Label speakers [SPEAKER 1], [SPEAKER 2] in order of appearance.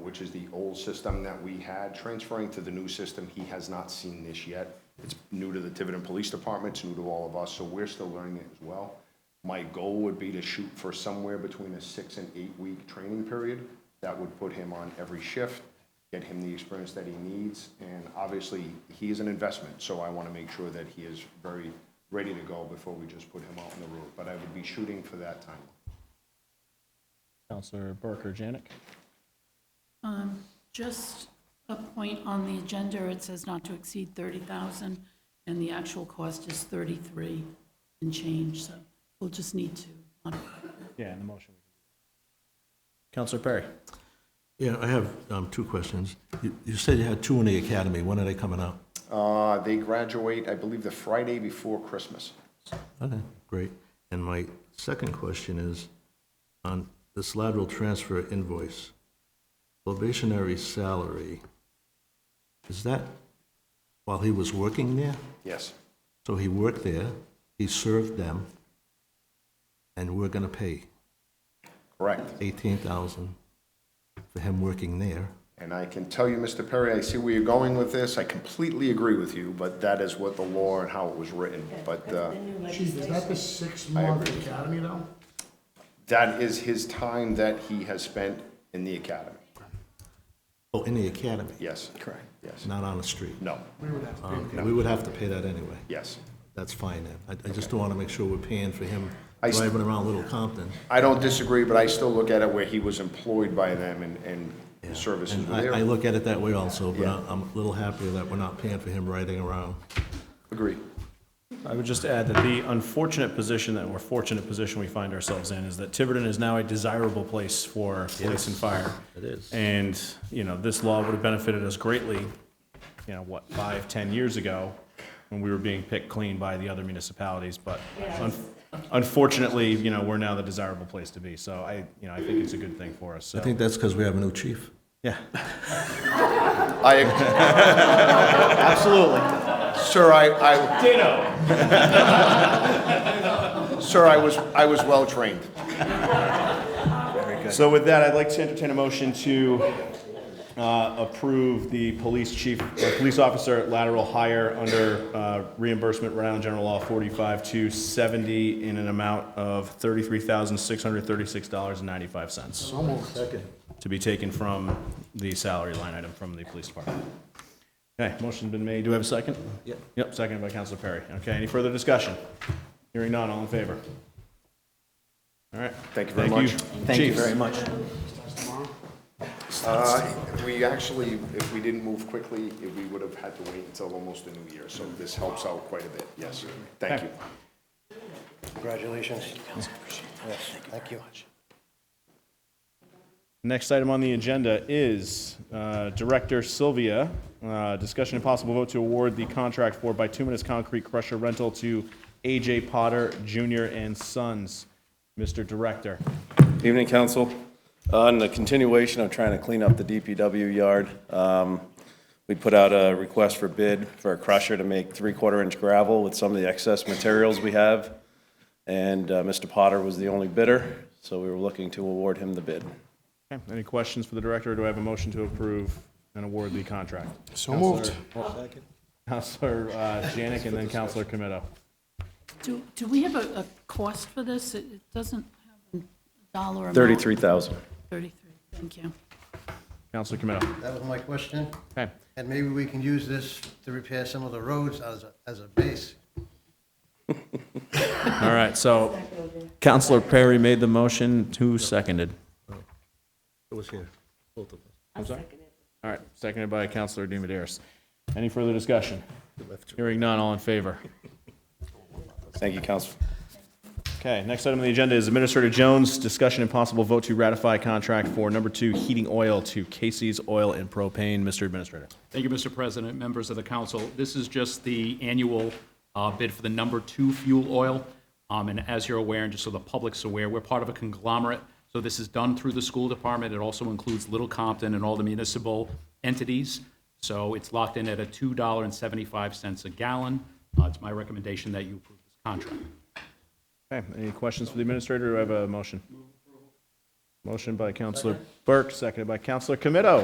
[SPEAKER 1] which is the old system that we had, transferring to the new system. He has not seen this yet. It's new to the Tiverton Police Department, it's new to all of us, so we're still learning it as well. My goal would be to shoot for somewhere between a six and eight-week training period. That would put him on every shift, get him the experience that he needs, and obviously, he is an investment, so I want to make sure that he is very ready to go before we just put him out on the road. But I would be shooting for that time.
[SPEAKER 2] Counselor Burke or Janik?
[SPEAKER 3] Just a point on the agenda, it says not to exceed 30,000, and the actual cost is 33 and change, so we'll just need to modify
[SPEAKER 2] Yeah, in the motion. Counselor Perry?
[SPEAKER 4] Yeah, I have um, two questions. You you said you had two in the academy. When are they coming out?
[SPEAKER 1] Uh, they graduate, I believe, the Friday before Christmas.
[SPEAKER 4] Okay, great. And my second question is on this lateral transfer invoice, probationary salary, is that while he was working there?
[SPEAKER 1] Yes.
[SPEAKER 4] So he worked there, he served them, and we're going to pay
[SPEAKER 1] Correct.
[SPEAKER 4] 18000 for him working there.
[SPEAKER 1] And I can tell you, Mr. Perry, I see where you're going with this. I completely agree with you, but that is what the law and how it was written. But, uh,
[SPEAKER 5] Chief, is that the six-month academy now?
[SPEAKER 1] that is his time that he has spent in the academy.
[SPEAKER 4] Oh, in the academy,
[SPEAKER 1] Yes. Correct. Yes.
[SPEAKER 4] not on the street.
[SPEAKER 1] No.
[SPEAKER 5] We would have to pay
[SPEAKER 4] Okay, We would have to pay that anyway.
[SPEAKER 1] Yes.
[SPEAKER 4] That's fine then. I, I just don't want to make sure we're paying for him
[SPEAKER 1] I s-
[SPEAKER 4] driving around Little Compton.
[SPEAKER 1] I don't disagree, but I still look at it where he was employed by them and, and his services
[SPEAKER 4] And
[SPEAKER 1] were
[SPEAKER 4] I, I
[SPEAKER 1] there.
[SPEAKER 4] look at it that way also, but
[SPEAKER 1] Yeah.
[SPEAKER 4] I- I'm a little happier that we're not paying for him riding around.
[SPEAKER 1] Agree.
[SPEAKER 2] I would just add that the unfortunate position, that we're fortunate position we find ourselves in, is that Tiverton is now a desirable place for police and fire.
[SPEAKER 4] It is.
[SPEAKER 2] And, you know, this law would have benefited us greatly, you know, what, five, ten years ago, when we were being picked clean by the other municipalities, but un- unfortunately, you know, we're now the desirable place to be, so I, you know, I think it's a good thing for us,
[SPEAKER 4] I
[SPEAKER 2] so,
[SPEAKER 4] think that's because we have a new chief.
[SPEAKER 2] yeah.
[SPEAKER 1] I,
[SPEAKER 2] Absolutely.
[SPEAKER 1] sir, I, I,
[SPEAKER 2] Ditto.
[SPEAKER 1] sir, I was, I was well-trained.
[SPEAKER 2] So with that, I'd like to entertain a motion to uh, approve the police chief, or police officer lateral hire under uh, reimbursement Rhode Island General Law 45 to 70 in an amount of $33,636.95
[SPEAKER 5] Almost.
[SPEAKER 2] to be taken from the salary line item from the police department. Okay, motion's been made. Do we have a second?
[SPEAKER 4] Yep.
[SPEAKER 2] Yep, seconded by Counselor Perry. Okay, any further discussion? Hearing none, all in favor? All right.
[SPEAKER 1] Thank you very much.
[SPEAKER 2] Thank you very much.
[SPEAKER 1] Uh, We actually, if we didn't move quickly, we would have had to wait until almost the new year, so this helps out quite a bit, yes. Thank you.
[SPEAKER 6] Congratulations. Yes, thank you.
[SPEAKER 2] Next item on the agenda is uh, Director Sylvia, uh, discussion and possible vote to award the contract for bituminous concrete crusher rental to AJ Potter Jr. and Sons. Mr. Director,
[SPEAKER 7] Evening, council. On the continuation of trying to clean up the DPW yard, um, we put out a request for bid for a crusher to make three-quarter inch gravel with some of the excess materials we have. And uh, Mr. Potter was the only bidder, so we were looking to award him the bid.
[SPEAKER 2] Okay, any questions for the director, or do I have a motion to approve and award the contract?
[SPEAKER 5] So moved.
[SPEAKER 2] Counselor uh, Janik and then Counselor Comito.
[SPEAKER 3] it. Do, do we have a, a cost for this? It it doesn't have a dollar amount.
[SPEAKER 7] 33,000.
[SPEAKER 3] 33, thank you.
[SPEAKER 2] Counselor Comito.
[SPEAKER 6] That was my question,
[SPEAKER 2] Okay,
[SPEAKER 6] and maybe we can use this to repair some of the roads as a, as a base.
[SPEAKER 8] All right, so Counselor Perry made the motion, who seconded?
[SPEAKER 4] It was here, both of us.
[SPEAKER 2] I'm sorry? All right, seconded by Counselor Demidaris. Any further discussion? Hearing none, all in favor?
[SPEAKER 7] Thank you, council.
[SPEAKER 2] Okay, next item on the agenda is Administrator Jones, discussion and possible vote to ratify contract for number two heating oil to Casey's Oil and Propane. Mr. Administrator.
[SPEAKER 9] Thank you, Mr. President, members of the council. This is just the annual uh, bid for the number two fuel oil. Um, And as you're aware, and just so the public's aware, we're part of a conglomerate. So this is done through the school department. It also includes Little Compton and all the municipal entities. So it's locked in at a $2.75 a gallon. Uh, It's my recommendation that you approve this contract.
[SPEAKER 2] Okay, any questions for the Administrator? Do I have a motion? Motion by Counselor Burke, seconded by Counselor Comito.